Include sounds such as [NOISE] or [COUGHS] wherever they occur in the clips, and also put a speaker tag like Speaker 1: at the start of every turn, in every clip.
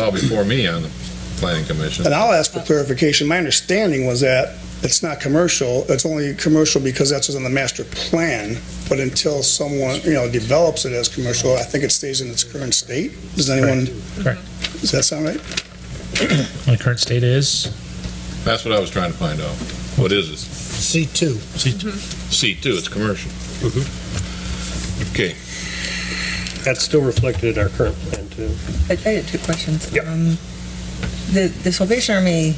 Speaker 1: Well, before me on the planning commission.
Speaker 2: And I'll ask for clarification. My understanding was that it's not commercial, it's only commercial because that's what's on the master plan, but until someone, you know, develops it as commercial, I think it stays in its current state. Does anyone?
Speaker 3: Correct.
Speaker 2: Does that sound right?
Speaker 3: My current state is
Speaker 1: That's what I was trying to find out. What is it?
Speaker 4: C2.
Speaker 1: C2, it's commercial. Okay,
Speaker 4: That's still reflected in our current plan, too.
Speaker 5: I I had two questions.
Speaker 4: Yep.
Speaker 5: Um, The, the Salvation Army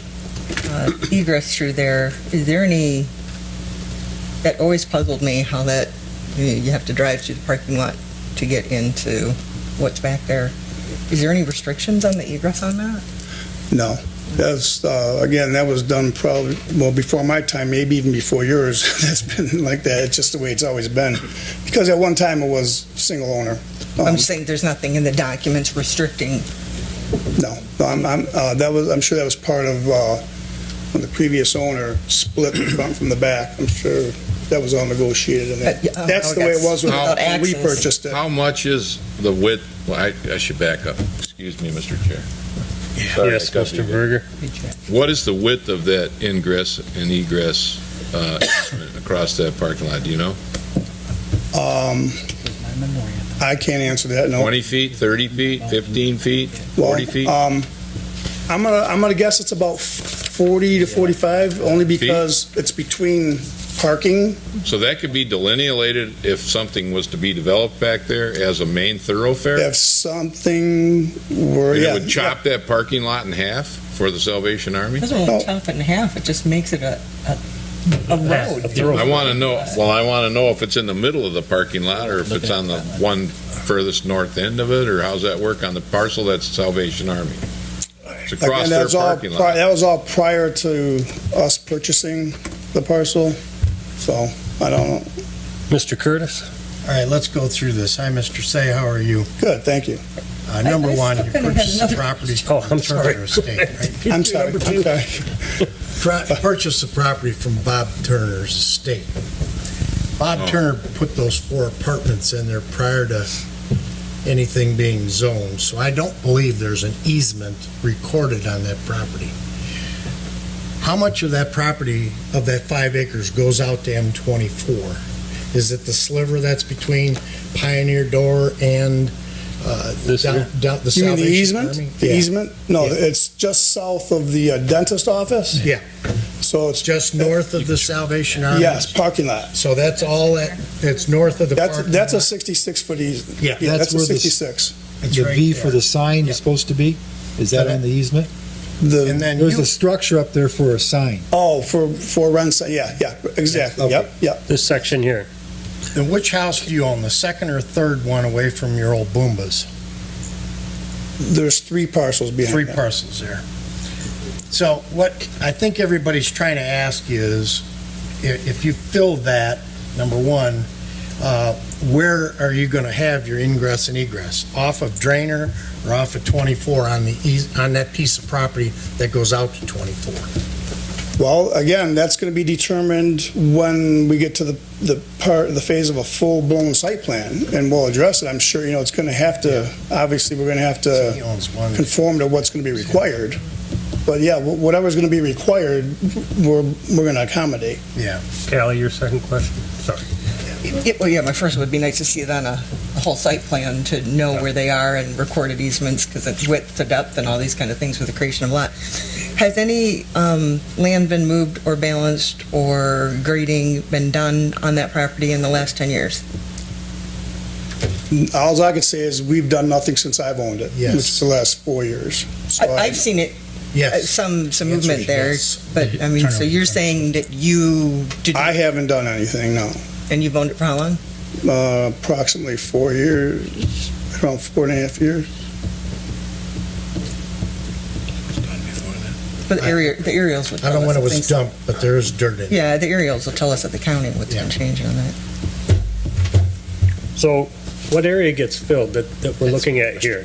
Speaker 5: uh, egress through there, is there any, that always puzzled me how that, you know, you have to drive through the parking lot to get into what's back there. Is there any restrictions on the egress on that?
Speaker 2: No. That's, uh, again, that was done probably, well, before my time, maybe even before yours. [LAUGHS] That's been like that. It's just the way it's always been. Because at one time it was single owner.
Speaker 5: I'm
Speaker 2: Um,
Speaker 5: just saying there's nothing in the documents restricting.
Speaker 2: No, No, I'm, I'm, uh, that was, I'm sure that was part of, uh, when the previous owner split the front from the back. I'm sure that was all negotiated in there.
Speaker 5: But, Uh, yeah, I don't
Speaker 2: That's the
Speaker 5: know,
Speaker 2: way it was when
Speaker 5: that's
Speaker 2: when we
Speaker 5: without access.
Speaker 2: purchased it.
Speaker 1: how much is the width? Well, I, I should back up. Excuse me, Mr. Chair. Sorry, I
Speaker 4: Yes,
Speaker 1: cut you
Speaker 4: Mr.
Speaker 1: again.
Speaker 4: Berger?
Speaker 1: What is the width of that ingress and egress uh, [COUGHS] across that parking lot? Do you know?
Speaker 2: Um, I can't answer that, no.
Speaker 1: 20 feet, 30 feet, 15 feet,
Speaker 2: Well,
Speaker 1: 40 feet?
Speaker 2: Um, I'm gonna, I'm gonna guess it's about 40 to 45, only because it's between parking.
Speaker 1: So that could be delineated if something was to be developed back there as a main thoroughfare?
Speaker 2: If something were,
Speaker 1: And
Speaker 2: yeah.
Speaker 1: it would chop that parking lot in half for the Salvation Army?
Speaker 5: It doesn't really
Speaker 2: No.
Speaker 5: chop it in half, it just makes it a, a- a road.
Speaker 4: a thorough-
Speaker 1: I want to know, well, I want to know if it's in the middle of the parking lot or if it's on the one furthest north end of it, or how's that work on the parcel that's Salvation Army? It's across
Speaker 2: Again,
Speaker 1: their
Speaker 2: that's all
Speaker 1: parking
Speaker 2: pri-
Speaker 1: lot.
Speaker 2: That was all prior to us purchasing the parcel, so I don't,
Speaker 4: Mr. Curtis?
Speaker 6: All right, let's go through this. Hi, Mr. Say, how are you?
Speaker 2: good, thank you.
Speaker 6: Uh, Number
Speaker 5: I
Speaker 6: one,
Speaker 5: still
Speaker 6: you
Speaker 5: kinda had
Speaker 6: purchased the
Speaker 5: another-
Speaker 6: property.
Speaker 4: [LAUGHS] Oh,
Speaker 6: from
Speaker 4: I'm
Speaker 6: the
Speaker 4: sorry.
Speaker 6: Turner Estate, right?
Speaker 2: I'm sorry, I'm
Speaker 4: Number two.
Speaker 2: sorry.
Speaker 6: Pro- Purchased the property from Bob Turner's estate.
Speaker 1: Oh.
Speaker 6: Bob Turner put those four apartments in there prior to anything being zoned, so I don't believe there's an easement recorded on that property. How much of that property, of that five acres, goes out to M24? Is it the sliver that's between Pioneer Door and uh,
Speaker 4: This
Speaker 6: down-
Speaker 4: here?
Speaker 6: down the
Speaker 2: You mean the
Speaker 6: Salvation Army?
Speaker 2: easement? The
Speaker 6: Yeah.
Speaker 2: easement? No,
Speaker 6: Yeah.
Speaker 2: it's just south of the uh, dentist office,
Speaker 6: Yeah,
Speaker 2: so it's,
Speaker 6: just north of the Salvation Army?
Speaker 2: yes, parking lot.
Speaker 6: So that's all that, that's north of the
Speaker 2: That's,
Speaker 6: parking
Speaker 2: that's a
Speaker 6: lot?
Speaker 2: 66-foot easement.
Speaker 6: Yeah,
Speaker 2: Yeah,
Speaker 7: that's
Speaker 2: that's a
Speaker 7: where the s-
Speaker 2: 66.
Speaker 6: It's
Speaker 7: The
Speaker 6: right
Speaker 7: V for
Speaker 6: there.
Speaker 7: the sign
Speaker 6: Yeah.
Speaker 7: is supposed to be? Is that on the easement?
Speaker 6: And
Speaker 2: The,
Speaker 6: then
Speaker 7: There's
Speaker 6: you,
Speaker 7: a structure up there for a sign.
Speaker 2: oh, for, for rent, si- yeah, yeah, exactly,
Speaker 7: Okay.
Speaker 2: yep, yep.
Speaker 4: This section here.
Speaker 6: then which house do you own, the second or third one away from your old Boombas?
Speaker 2: There's three parcels behind
Speaker 6: Three
Speaker 2: that.
Speaker 6: parcels there. So what I think everybody's trying to ask is, i- if you fill that, number one, uh, where are you going to have your ingress and egress? Off of Drainer or off of 24 on the, eas- on that piece of property that goes out to 24?
Speaker 2: Well, again, that's going to be determined when we get to the, the part, the phase of a full-blown site plan, and we'll address it. I'm sure, you know, it's going to have to, obviously, we're going to have
Speaker 6: He
Speaker 2: to
Speaker 6: owns one.
Speaker 2: conform to what's going to be required. But yeah, wh- whatever's going to be required, we're, we're going to accommodate.
Speaker 6: Yeah.
Speaker 4: Callie, your second question? Sorry.
Speaker 5: Yeah, well, yeah, my first would be nice to see it on a, a whole site plan to know where they are and recorded easements because it's width to depth and all these kind of things with the creation of lot. Has any um, land been moved or balanced or grading been done on that property in the last 10 years?
Speaker 2: Alls I could say is we've done nothing since I've owned it, which
Speaker 6: Yes.
Speaker 2: is the last four years. So
Speaker 5: I, I've seen it, uh,
Speaker 6: Yes.
Speaker 5: some, some
Speaker 6: The answer
Speaker 5: movement
Speaker 6: is
Speaker 5: there,
Speaker 6: yes.
Speaker 5: but I mean, so you're saying that you did,
Speaker 2: I haven't done anything, no.
Speaker 5: and you've owned it for how long?
Speaker 2: Uh, Approximately four years, around four and a half years.
Speaker 5: But the
Speaker 6: I-
Speaker 5: area, the aerials would
Speaker 6: I
Speaker 5: tell
Speaker 6: don't know
Speaker 5: us.
Speaker 6: when it
Speaker 5: things-
Speaker 6: was dumped, but there is dirt in it.
Speaker 5: Yeah, the aerials will tell us at the county what's been
Speaker 6: Yeah.
Speaker 5: changed on that.
Speaker 4: So what area gets filled that, that we're looking at here?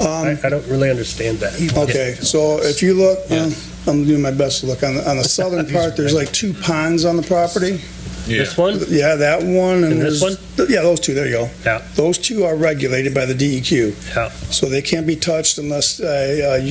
Speaker 2: Um,
Speaker 4: I, I don't really understand that.
Speaker 2: Okay, so if you
Speaker 4: [LAUGHS]
Speaker 2: look, um, I'm doing my best to look, on the, on the southern part, there's like two ponds on the property.
Speaker 1: Yeah,
Speaker 4: This one?
Speaker 2: Yeah, that one and
Speaker 4: And this
Speaker 2: there's- th- Yeah, those two, there you go.
Speaker 4: Yeah.
Speaker 2: Those two are regulated by the E DEQ.
Speaker 4: Yeah.
Speaker 2: So they can't be touched unless, uh, uh,